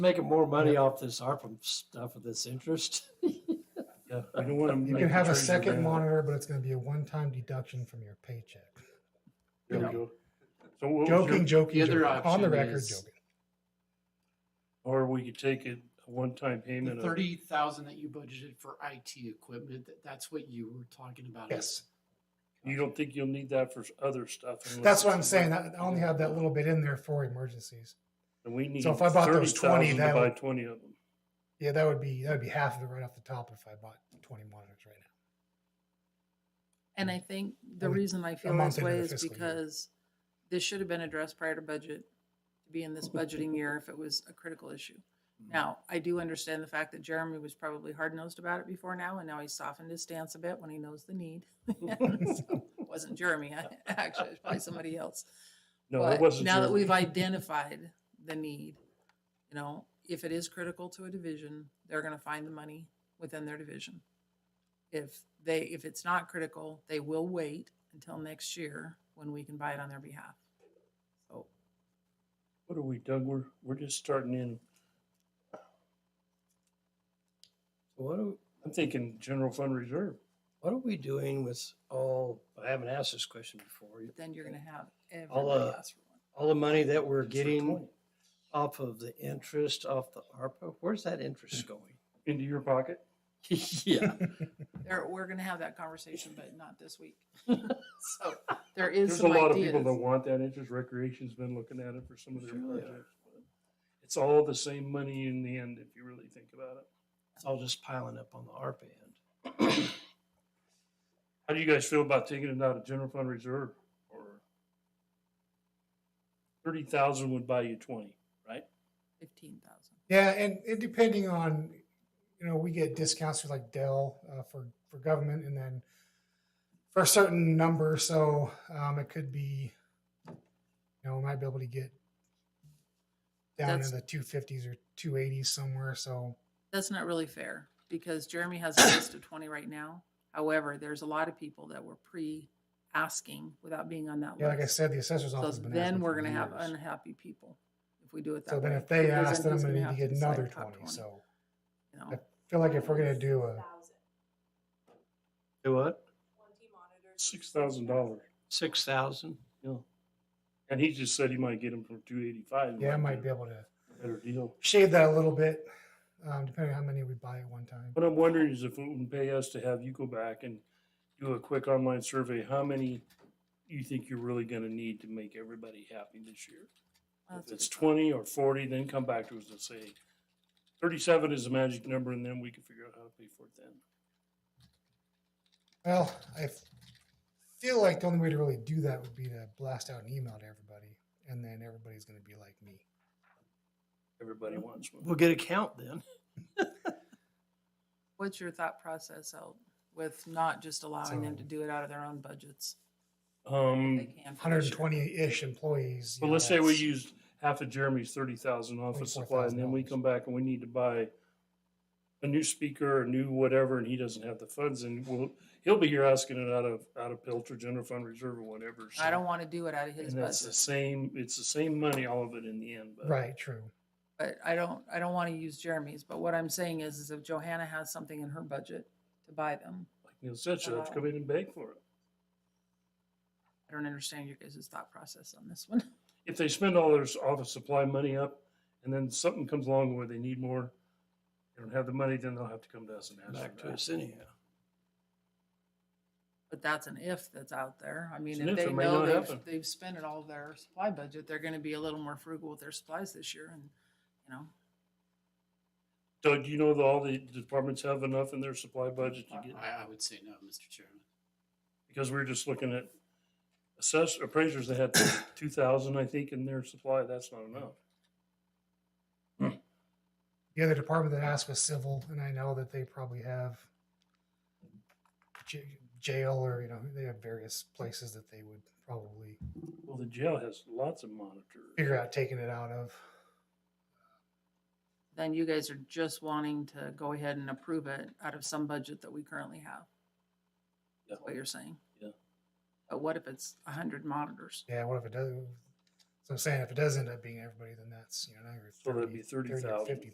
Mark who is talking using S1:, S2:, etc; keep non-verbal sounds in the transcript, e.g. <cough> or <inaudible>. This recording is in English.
S1: Making more money off this ARPA stuff with this interest.
S2: Yeah, I don't want to.
S3: You can have a second monitor, but it's going to be a one-time deduction from your paycheck.
S2: There we go. So what was your-
S3: Joking, joking,
S4: the other
S3: joking. on the
S4: option
S3: record,
S4: is-
S3: joking.
S2: or we could take it a one-time
S4: <laughs>
S2: payment.
S4: The
S2: of-
S4: thirty thousand that you budgeted for IT equipment, that, that's what you were talking about.
S3: Yes,
S2: You don't think you'll need that for other stuff? unless
S3: that's what I'm
S2: it's-
S3: saying. I I only have that little bit in there for emergencies.
S2: And we need.
S3: So if I bought those 20,
S2: 30,000
S3: that
S2: to Buy
S3: would-
S2: twenty of them.
S3: Yeah, that would be that would be half of it right off the top if I bought 20 monitors right now.
S5: And
S3: Mm.
S5: I think the
S3: Only
S5: reason I feel
S3: month
S5: this
S3: into
S5: way
S3: the
S5: is
S3: fiscal year.
S5: because this should have been addressed prior to budget, to be in
S3: <laughs>
S5: this budgeting year if it was a critical issue.
S3: Mm.
S5: Now, I do understand the fact that Jeremy was probably hard-nosed about it before now, and now he's softened his stance a bit when he knows the need. <laughs> So, it Wasn't Jeremy, <laughs> I- actually, it's probably somebody else.
S2: No, it
S5: But
S2: wasn't.
S5: Now that
S2: your-
S5: we've identified the need, you know, if it is critical to a division, they're gonna find the money within their division. If they, if it's not critical, they will wait until next year when we can buy it on their behalf. So,
S2: What are we, Doug? We're, we're just starting in.
S1: What are,
S2: I'm thinking general fund reserve.
S1: what are we doing with all, I haven't asked this question before.
S5: then you're gonna have
S1: uh,
S5: everybody ask for one.
S1: All the money that we're
S2: It's for
S1: getting
S2: 20.
S1: off of the interest off the ARPA, where's that <laughs> interest going?
S2: Into your pocket?
S1: Yeah,
S5: There, we're gonna have that conversation, but not this week. <laughs> So, there is
S2: There's a
S5: some
S2: lot of people
S5: ideas.
S2: that want that interest. Recreation's been looking at it for some of their
S1: Sure they are.
S2: projects. but It's all the same money in the end, if you really think about it.
S1: it's all just piling up on the ARPA end.
S2: How do you guys feel about taking it out of general fund reserve or? Thirty thousand would buy you twenty, right?
S5: Fifteen thousand.
S3: Yeah, and, and depending on, you know, we get discounts through like Dell uh, for for government, and then for a certain number, so um, it could be, you know, we might be able to get down
S5: That's-
S3: in the two fifties or two eighties somewhere. So
S5: That's not really fair because Jeremy has a list of twenty right now. However, there's a lot of people that were pre-asking without being on that list.
S3: yeah, like I said, the assessor's
S5: So
S3: office. has been
S5: then
S3: asking
S5: we're
S3: for
S5: gonna have
S3: years.
S5: unhappy people if we do it that
S3: So
S5: way.
S3: then if they
S5: because
S3: ask, then I'm
S5: he's
S3: gonna need to
S5: have
S3: get
S5: decide
S3: another
S5: top
S3: twenty. So
S5: you know.
S3: I feel like if we're gonna do a
S1: Do what?
S2: Six thousand dollars.
S1: Six thousand?
S2: Yeah. And he just said he might get them for two eighty-five.
S3: yeah, I might be able to
S2: Better deal.
S3: shave that a little bit, um, depending on how many we buy at one time.
S2: What I'm wondering is if it would pay us to have you go back and do a quick online survey, how many you think you're really gonna need to make everybody happy this year?
S5: that's
S2: If
S5: a
S2: it's
S5: good thought.
S2: twenty or forty, then come back to us and say thirty-seven is the magic number and then we can figure out how to pay for it then.
S3: Well, I f- feel like the only way to really do that would be to blast out an email to everybody, and then everybody's going to be like me.
S2: Everybody wants one.
S1: We'll get a count then.
S5: What's your thought process out with not just allowing them to
S3: So-
S5: do it out of their own budgets? if
S2: Um,
S5: they can for this year?
S3: 120-ish employees. you
S2: but
S3: know,
S2: let's say we
S3: that's-
S2: use half of Jeremy's thirty thousand office supply and then we
S3: $24,000.
S2: come back and we need to buy a new speaker, a new whatever, and he doesn't have the funds and we'll, he'll be here asking it out of, out of Pilcher General Fund Reserve or whatever.
S5: I
S2: so-
S5: don't want to do it out of his
S2: And it's the
S5: budget,
S2: same, it's the same money, all of it in the end, but.
S3: Right, true.
S5: but I don't, I don't want to use Jeremy's, but what I'm saying is, is if Johanna has something in her budget to buy them,
S2: Like Neil said, she'll
S5: Uh-huh.
S2: have to come in and beg for it.
S5: I don't understand your guys' thought process on this one. <laughs>
S2: If they spend all their s- office supply money up and then something comes along where they need more, they don't have the money, then they'll have to come to us and ask
S1: Back
S2: for
S1: to
S2: that.
S1: us anyhow.
S5: But that's an if that's out there. I mean,
S2: an
S5: if
S2: if,
S5: they
S2: it may
S5: know
S2: not
S5: they've,
S2: happen.
S5: they've spent it all their supply budget, they're gonna be a little more frugal with their supplies this year and, you know.
S2: Doug, do you know that all the departments have enough in their supply budget to get?
S4: I, I would say no, Mr. Chairman.
S2: Because we were just looking at assess, appraisers that had <coughs> two thousand, I think, in their supply, that's not enough.
S3: The other department that asked was civil, and I know that they probably have j- jail or, you know, they have various places that they would probably
S2: Well, the jail has lots of monitors.
S3: figure out taking it out of.
S5: Then you guys are just wanting to go ahead and approve it out of some budget that we currently have.
S2: Yeah.
S5: That's what you're saying.
S2: Yeah.
S5: But what if it's a hundred monitors?
S3: Yeah, what if it does? So I'm saying if it does end up being everybody, then that's, you know, now you're
S2: So that'd
S3: 30
S2: be
S3: 30 or
S2: 30,000.
S3: Fifty